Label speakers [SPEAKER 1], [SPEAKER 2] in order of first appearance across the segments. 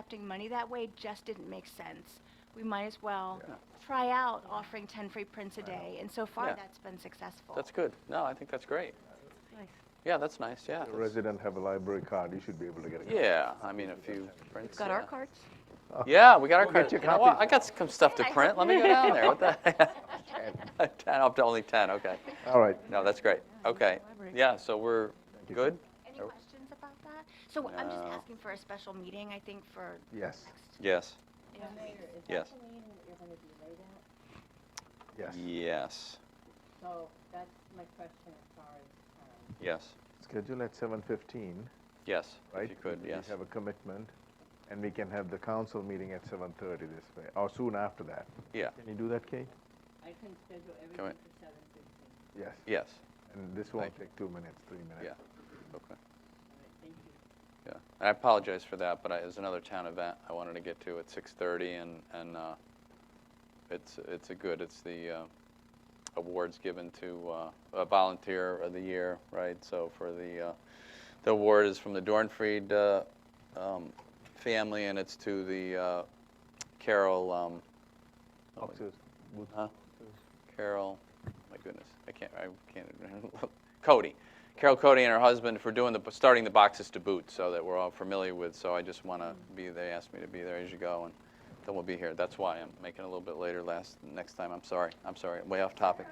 [SPEAKER 1] accepting money that way just didn't make sense. We might as well try out offering 10 free prints a day, and so far,
[SPEAKER 2] Yeah.
[SPEAKER 1] that's been successful.
[SPEAKER 2] That's good. No, I think that's great. Yeah, that's nice, yeah.
[SPEAKER 3] A
[SPEAKER 2] that's-
[SPEAKER 3] resident have a library card, you should be able to get a card.
[SPEAKER 2] Yeah, I mean, a few prints.
[SPEAKER 4] Got
[SPEAKER 2] yeah.
[SPEAKER 4] our cards?
[SPEAKER 2] Yeah, we got our
[SPEAKER 3] We'll
[SPEAKER 2] cards.
[SPEAKER 3] get you
[SPEAKER 2] You know what?
[SPEAKER 3] copies.
[SPEAKER 2] I got some stuff to print. Let me go down there. What the? heck? 10, up to only 10, okay.
[SPEAKER 3] All right.
[SPEAKER 2] No, that's great. Okay. Yeah, so we're good?
[SPEAKER 1] Any questions about that? So I'm just
[SPEAKER 2] No.
[SPEAKER 1] asking for a special meeting, I think, for
[SPEAKER 3] Yes,
[SPEAKER 2] Yes,
[SPEAKER 1] Yeah.
[SPEAKER 5] Mayor, is that
[SPEAKER 2] Yes.
[SPEAKER 5] the meeting that you're gonna be late at?
[SPEAKER 3] yes.
[SPEAKER 2] yes,
[SPEAKER 5] So that's my question as far as, um,
[SPEAKER 2] yes,
[SPEAKER 3] Schedule at 7:15,
[SPEAKER 2] yes.
[SPEAKER 3] right?
[SPEAKER 2] If you could, yes.
[SPEAKER 3] We have a commitment, and we can have the council meeting at 7:30 this way, or soon after that.
[SPEAKER 2] Yeah,
[SPEAKER 3] Can you do that, Kate?
[SPEAKER 5] I can schedule
[SPEAKER 2] on.
[SPEAKER 5] everything for seven fifteen.
[SPEAKER 3] Yes.
[SPEAKER 2] yes,
[SPEAKER 3] And this won't take two minutes, three minutes.
[SPEAKER 2] yeah. Okay.
[SPEAKER 5] All right, thank you.
[SPEAKER 2] Yeah, and I apologize for that, but I, there's another town event I wanted to get to at 6:30, and and uh, it's it's a good. It's the uh, awards given to uh, a volunteer of the year, right? So for the uh, the award is from the Dornfried uh, um, family, and it's to the uh, Carol. Um, oh my-
[SPEAKER 3] Oxus, Booth-
[SPEAKER 2] Huh? Carol, my goodness, I can't, I can't, Cody. Carol Cody and her husband for doing the, starting the boxes to boot, so that we're all familiar with, so I just want to be, they asked me to be there as you go, and then we'll be here. That's why I'm making it a little bit later last, next time, I'm sorry, I'm sorry, way off topic.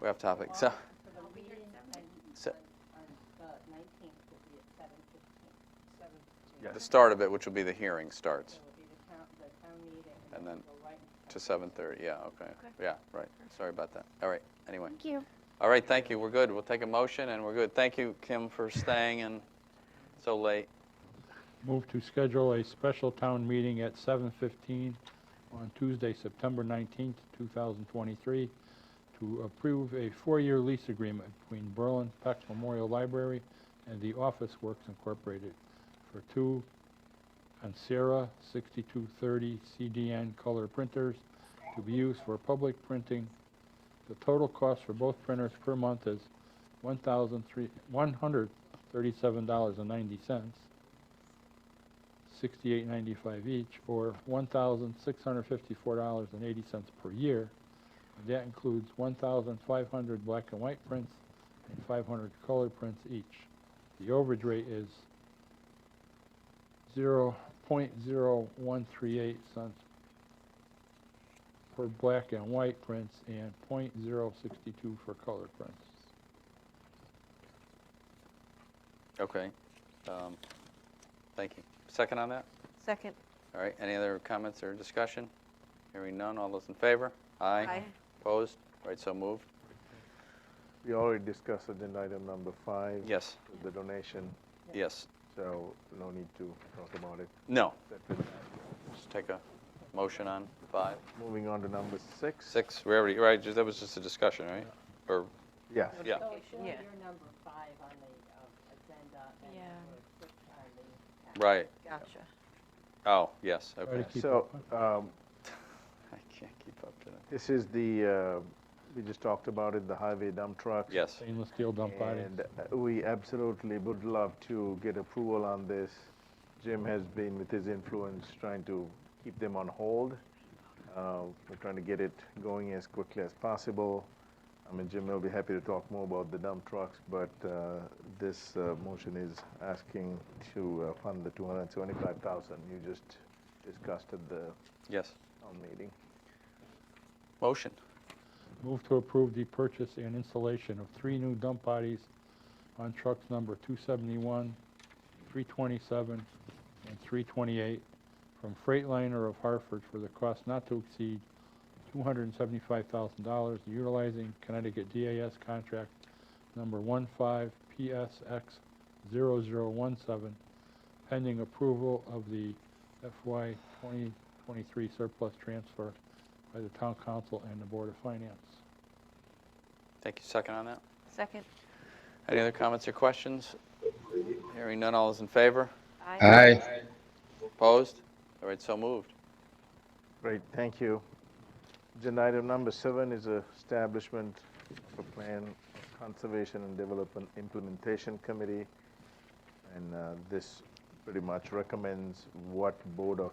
[SPEAKER 2] Way off topic, so,
[SPEAKER 5] For the meeting on,
[SPEAKER 2] so,
[SPEAKER 5] on the nineteenth will be at seven fifteen. Seven fifteen.
[SPEAKER 2] the
[SPEAKER 3] Yes.
[SPEAKER 2] start of it, which will be the hearing
[SPEAKER 5] So
[SPEAKER 2] starts,
[SPEAKER 5] it'll be the town, the town meeting.
[SPEAKER 2] And then
[SPEAKER 5] we'll go right into
[SPEAKER 2] to 7:30, yeah, okay, yeah, right, sorry about that, all right, anyway.
[SPEAKER 1] Thank you.
[SPEAKER 2] All right, thank you, we're good, we'll take a motion, and we're good. Thank you, Kim, for staying and so late.
[SPEAKER 6] Move to schedule a special town meeting at 7:15 on Tuesday, September 19th, 2023, to approve a four-year lease agreement between Berlin Peck Memorial Library and The Office Works Incorporated for two Ansera 6230 CDN color printers to be used for public printing. The total cost for both printers per month is $1,137.90 sixty-eight ninety-five each, or one thousand six hundred fifty-four dollars and eighty cents per year. And That includes one thousand five hundred black and white prints and five hundred color prints each. The overage rate is zero point zero one three eight cents for black and white prints and point zero sixty-two for color prints.
[SPEAKER 2] Okay. Um, Thank you. Second on that?
[SPEAKER 4] Second.
[SPEAKER 2] All right, any other comments or discussion? Hearing none, all those in favor? Aye.
[SPEAKER 4] Aye.
[SPEAKER 2] Opposed? All right, so moved?
[SPEAKER 3] We already discussed agenda item number five.
[SPEAKER 2] Yes,
[SPEAKER 3] The donation,
[SPEAKER 2] yes.
[SPEAKER 3] so no need to talk about it.
[SPEAKER 2] No,
[SPEAKER 3] That will-
[SPEAKER 2] just take a motion on five,
[SPEAKER 3] Moving on to number six.
[SPEAKER 2] six, we already, right, just- that was just a discussion, right? Or,
[SPEAKER 3] Yes.
[SPEAKER 5] So
[SPEAKER 2] Yeah.
[SPEAKER 5] show
[SPEAKER 4] Yeah.
[SPEAKER 5] your number five on the um, agenda and
[SPEAKER 4] Yeah.
[SPEAKER 5] we'll click on the.
[SPEAKER 2] right,
[SPEAKER 4] Gotcha.
[SPEAKER 2] oh, yes,
[SPEAKER 6] Try to
[SPEAKER 2] okay.
[SPEAKER 6] keep
[SPEAKER 3] So,
[SPEAKER 6] up.
[SPEAKER 3] um,
[SPEAKER 2] I can't keep up to that.
[SPEAKER 3] This is the, uh, we just talked about it, the highway dump trucks.
[SPEAKER 2] Yes,
[SPEAKER 6] Stainless steel dump body.
[SPEAKER 3] And uh, we absolutely would love to get approval on this. Jim has been with his influence trying to keep them on hold. Uh, We're trying to get it going as quickly as possible. I mean, Jim will be happy to talk more about the dump trucks, but uh, this uh, motion is asking to uh, fund the 275,000 you just discussed at the
[SPEAKER 2] yes.
[SPEAKER 3] town meeting.
[SPEAKER 2] Motion,
[SPEAKER 6] Move to approve the purchase and installation of three new dump bodies on trucks number 271, 327, and 328 from Freightliner of Hartford for the cost not to exceed $275,000 utilizing Connecticut DAS contract number 15PSX0017 pending approval of the FY 2023 surplus transfer by the town council and the board of finance.
[SPEAKER 2] thank you, second on that.
[SPEAKER 4] Second.
[SPEAKER 2] Any other comments or questions? Hearing none, all those in favor?
[SPEAKER 4] Aye.
[SPEAKER 2] Opposed? All right, so moved.
[SPEAKER 3] Great, thank you. Agenda item number seven is a establishment of a plan of conservation and development implementation committee. And uh, this pretty much recommends what board or